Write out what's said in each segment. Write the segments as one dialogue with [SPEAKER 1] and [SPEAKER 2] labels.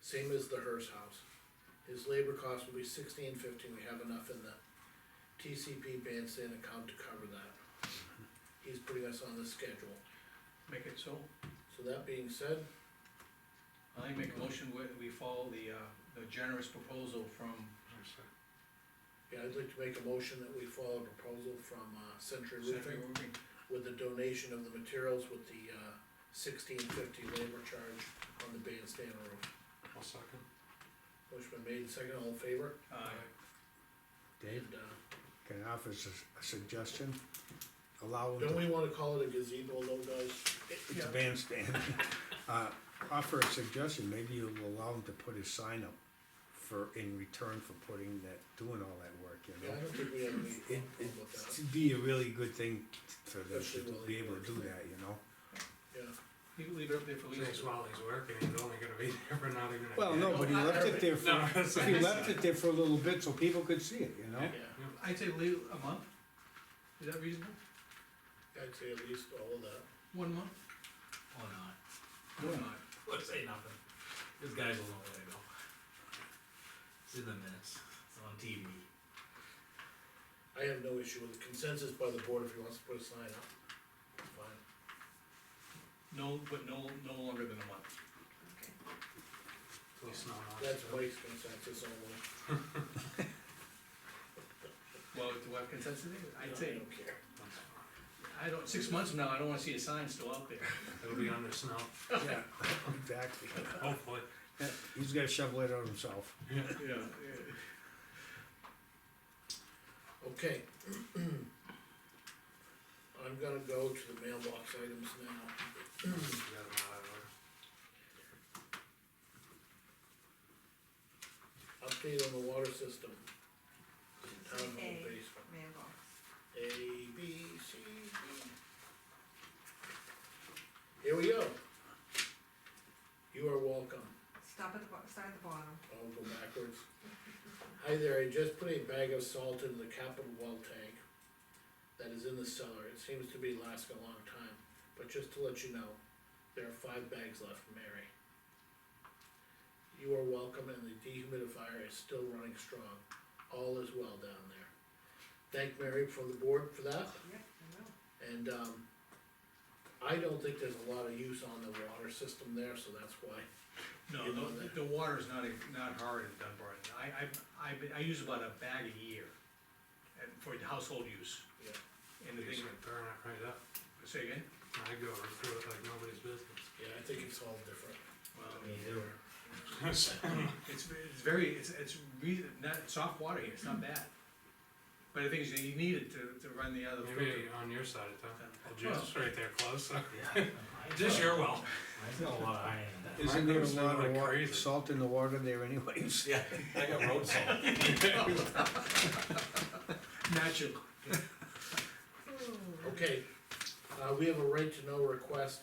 [SPEAKER 1] same as the Hearst house. His labor cost will be sixteen fifty, we have enough in the TCP bandstand account to cover that. He's putting us on the schedule,
[SPEAKER 2] Make it so.
[SPEAKER 1] so that being said,
[SPEAKER 2] I make a motion, we, we follow the, uh, the generous proposal from,
[SPEAKER 1] yeah, I'd like to make a motion that we follow a proposal from, uh, Century
[SPEAKER 2] Century
[SPEAKER 1] Roofing
[SPEAKER 2] Roofing.
[SPEAKER 1] with the donation of the materials with the, uh, sixteen fifty labor charge on the bandstand roof.
[SPEAKER 3] I'll second.
[SPEAKER 1] Motion been made, second, all in favor?
[SPEAKER 2] Aye.
[SPEAKER 4] Dave,
[SPEAKER 1] And, uh,
[SPEAKER 4] can I offer a sus- a suggestion? Allow them
[SPEAKER 1] don't
[SPEAKER 4] to,
[SPEAKER 1] we wanna call it a gazebo though, guys?
[SPEAKER 4] it's a bandstand. Uh, Offer a suggestion, maybe you'll allow him to put his sign up for, in return for putting that, doing all that work, you
[SPEAKER 1] Yeah,
[SPEAKER 4] know?
[SPEAKER 1] I don't think we have any
[SPEAKER 4] It,
[SPEAKER 1] problem with that,
[SPEAKER 4] it'd be a really good thing for them
[SPEAKER 1] Especially
[SPEAKER 4] to
[SPEAKER 1] while
[SPEAKER 4] be
[SPEAKER 1] he
[SPEAKER 4] able to do
[SPEAKER 1] works.
[SPEAKER 4] that, you know?
[SPEAKER 1] yeah.
[SPEAKER 2] You leave it up there for Lisa.
[SPEAKER 3] Just while he's working, he's only gonna be there for not even a.
[SPEAKER 4] Well, no, but he left it there for,
[SPEAKER 3] No, that's what
[SPEAKER 4] he
[SPEAKER 3] I
[SPEAKER 4] left
[SPEAKER 3] said.
[SPEAKER 4] it there for a little bit so people could see it, you know?
[SPEAKER 1] Yeah,
[SPEAKER 2] I'd say leave a month. Is that reasonable?
[SPEAKER 1] I'd say at least all of that.
[SPEAKER 2] One month? Or not? Or
[SPEAKER 4] Yeah.
[SPEAKER 2] not?
[SPEAKER 5] Let's say nothing. This guy's a long way to go. It's in the minutes. It's on TV.
[SPEAKER 1] I have no issue with the consensus by the board if he wants to put a sign up. Fine.
[SPEAKER 2] No, but no, no longer than a month.
[SPEAKER 3] Till it's not on.
[SPEAKER 1] That's Mike's consensus only.
[SPEAKER 2] Well, do I have consensus? I'd
[SPEAKER 1] I
[SPEAKER 2] say,
[SPEAKER 1] don't care.
[SPEAKER 2] I don't, six months from now, I don't wanna see a sign still out there.
[SPEAKER 3] It'll be under snow,
[SPEAKER 4] Yeah, exactly.
[SPEAKER 3] hopefully.
[SPEAKER 4] He's gotta shovel it out himself.
[SPEAKER 2] Yeah.
[SPEAKER 1] Okay. I'm gonna go to the mailbox items now.
[SPEAKER 3] You got 'em out of order.
[SPEAKER 1] Update on the water system. Town hall
[SPEAKER 6] A.
[SPEAKER 1] basement.
[SPEAKER 6] mailbox.
[SPEAKER 1] A, B, C, D. Here we go. You are welcome.
[SPEAKER 6] Stop at the, bo- start at the bottom.
[SPEAKER 1] I'll go backwards. Hi there, I just put a bag of salt in the capital well tank that is in the cellar, it seems to be lasting a long time, but just to let you know, there are five bags left, Mary. You are welcome and the dehumidifier is still running strong, all is well down there. Thank Mary from the board for that,
[SPEAKER 6] Yep, I will.
[SPEAKER 1] and, um, I don't think there's a lot of use on the water system there, so that's why.
[SPEAKER 2] No, the, the water's not, a- not hard in Dunbar. I, I, I, be- I use about a bag a year and for household use.
[SPEAKER 1] Yeah.
[SPEAKER 2] And the
[SPEAKER 3] You
[SPEAKER 2] thing,
[SPEAKER 3] should burn it right up.
[SPEAKER 2] say again?
[SPEAKER 3] I go through it like nobody's
[SPEAKER 1] Yeah, I think it's all different.
[SPEAKER 2] Well,
[SPEAKER 1] I mean, they're-
[SPEAKER 3] business.
[SPEAKER 2] It's, it's very, it's, it's really not, soft water here, it's not bad. But the thing is, you need it to, to run the other filter.
[SPEAKER 3] Maybe on your side of town.
[SPEAKER 2] Yeah.
[SPEAKER 3] Well, Jim's right there close,
[SPEAKER 4] Oh,
[SPEAKER 3] so.
[SPEAKER 5] Yeah.
[SPEAKER 3] Just your well.
[SPEAKER 5] I've got a lot of iron in that.
[SPEAKER 4] Isn't there a
[SPEAKER 3] goes through
[SPEAKER 4] lot of
[SPEAKER 3] like
[SPEAKER 4] water,
[SPEAKER 3] crazy.
[SPEAKER 4] salt in the water there anyways?
[SPEAKER 5] Yeah, I got road salt.
[SPEAKER 2] Natural.
[SPEAKER 1] Okay, uh, we have a right to know request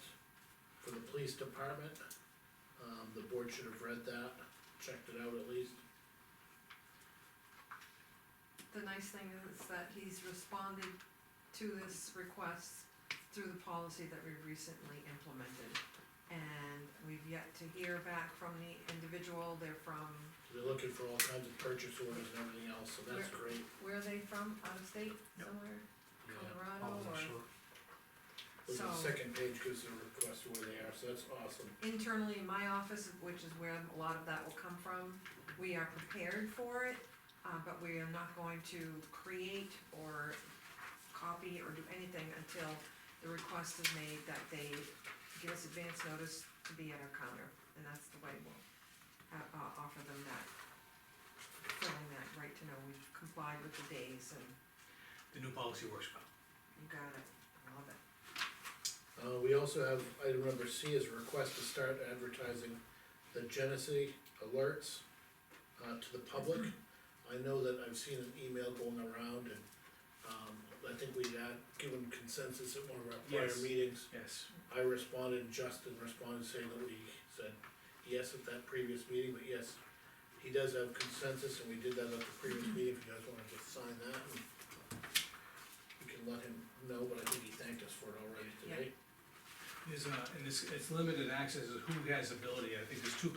[SPEAKER 1] for the police department. Um, the board should have read that, checked it out at least.
[SPEAKER 6] The nice thing is that he's responded to this request through the policy that we recently implemented. And we've yet to hear back from the individual, they're from,
[SPEAKER 1] They're looking for all kinds of purchase orders and everything else, so that's great.
[SPEAKER 6] where are they from, out of state
[SPEAKER 2] Yep.
[SPEAKER 6] somewhere,
[SPEAKER 1] Yeah.
[SPEAKER 6] Colorado
[SPEAKER 3] All
[SPEAKER 6] or?
[SPEAKER 3] short.
[SPEAKER 1] Look at The
[SPEAKER 6] So-
[SPEAKER 1] second page gives the request where they are, so that's awesome.
[SPEAKER 6] internally in my office, which is where a lot of that will come from, we are prepared for it, uh, but we are not going to create or copy or do anything until the request is made that they give us advance notice to be at our counter, and that's the way we'll, uh, uh, offer them that, filling that right to know we've complied with the days and
[SPEAKER 2] The new policy works well.
[SPEAKER 6] you got it, I love it.
[SPEAKER 1] Uh, we also have, item number C is request to start advertising the Genesee alerts, uh, to the public. I know that I've seen an email going around and, um, I think we had given consensus at one of our prior
[SPEAKER 2] Yes.
[SPEAKER 1] meetings.
[SPEAKER 2] Yes.
[SPEAKER 1] I responded, and Justin responded saying that we said yes at that previous meeting, but yes, he does have consensus, and we did that at the previous meeting, if you guys wanna just sign that. and We can let him know, but I think he thanked us for it already today.
[SPEAKER 2] There's, uh, and it's, it's limited access to who has ability, I think there's two